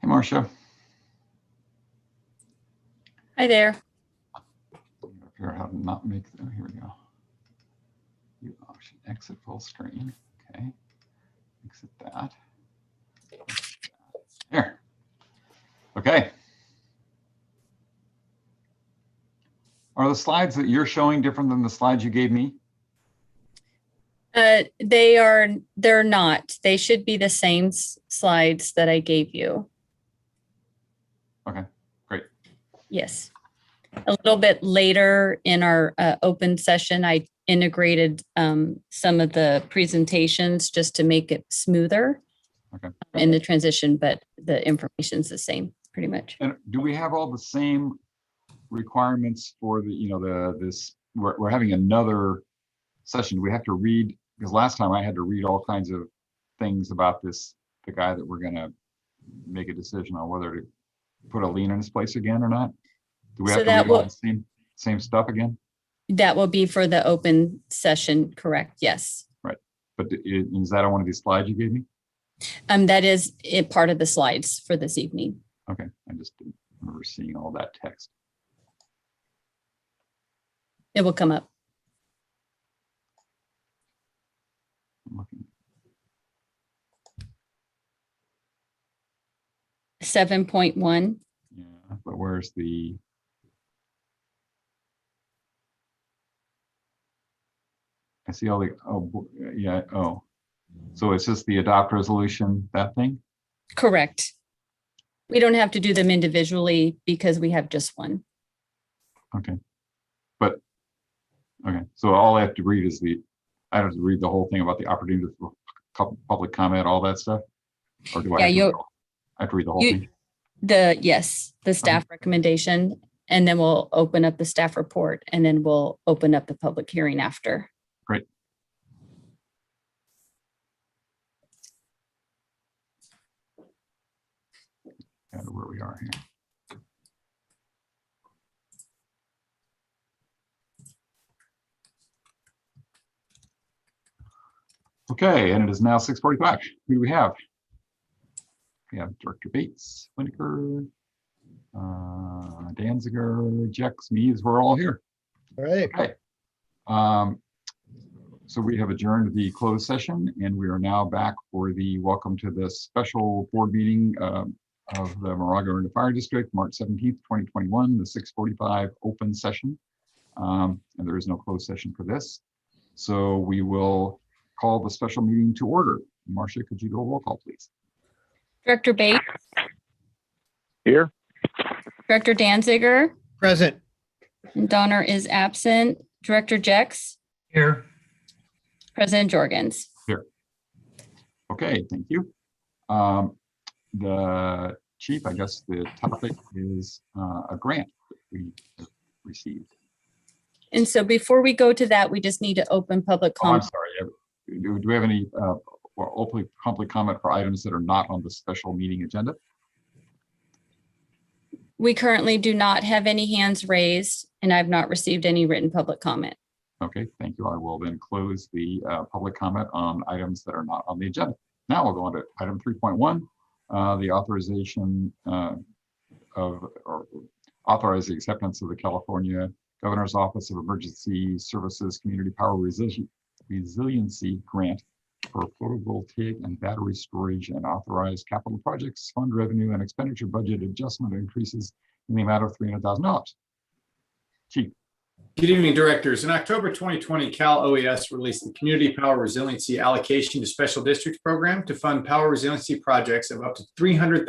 Hey, Marcia. Hi there. Figure out how to not make, oh, here we go. View option, exit full screen, okay. Exit that. There. Okay. Are the slides that you're showing different than the slides you gave me? Uh, they are, they're not. They should be the same s- slides that I gave you. Okay, great. Yes. A little bit later in our uh, open session, I integrated um, some of the presentations just to make it smoother um, Okay. in the transition, but the information's the same, pretty much. And do we have all the same requirements for the, you know, the, this, we're, we're having another session. Do We have to read, because last time I had to read all kinds of things about this, the guy that we're gonna make a decision on whether to put a lien in his place again or not. Do we So have to that read all will- the same, same stuff again? That will be for the open session, correct? Yes. But i- is that on one of these slides you gave me? Um, that is it, part of the slides for this evening. Okay, I just didn't remember seeing all that text. It will come up. I'm looking. Seven point one. Yeah, but where's the? I see all the, oh, bo- yeah, oh. So it's just the adopt resolution, that thing? Correct. We don't have to do them individually because we have just one. Okay, so all I have to read is the, I don't have to read the whole thing about the opportunity for cou- public comment, all that stuff? Or do I? have to Yeah, read you'll- all- I have to read the whole you- thing? The, yes, the staff Um. recommendation, and then we'll open up the staff report, and then we'll open up the public hearing after. Great. I don't know where we are here. Okay, and it is now six forty-five. Who do we have? We have Director Bates, Winiker, uh, Danziger, Jex, Mees, we're all here. All right, Okay. Um, So we have adjourned the closed session and we are now back for the welcome to the special board meeting um, of the Moraga and Fire District, March seventeenth, twenty twenty-one, the six forty-five open session. Um, And there is no closed session for this. So we will call the special meeting to order. Marcia, could you do a roll call, please? Director Bates, Here? Director Danziger, present. Donner is absent, Director Jex, Here. President Jorgens. Okay, thank you. Um, The chief, I guess the topic is uh, a grant that we received. And so before we go to that, we just need to open public Oh, I'm comment. sorry. uh, Do do we have any, uh, or openly, public comment for items that are not on the special meeting agenda? We currently do not have any hands raised, and I've not received any written public comment. Okay, thank you. I will then close the uh, public comment on items that are not on the agenda. Now we'll go on to item 3.1, uh, the authorization uh, of, or authorize the acceptance of the California Governor's Office of Emergency Services Community Power Resili- Resiliency Grant for photovoltaic and battery storage and authorize capital projects, fund revenue and expenditure budget adjustment increases in the amount of $300,000. Chief, Good evening, directors. In October 2020, Cal OES released the Community Power Resiliency Allocation to Special Districts Program to fund power resiliency projects of up to 300,000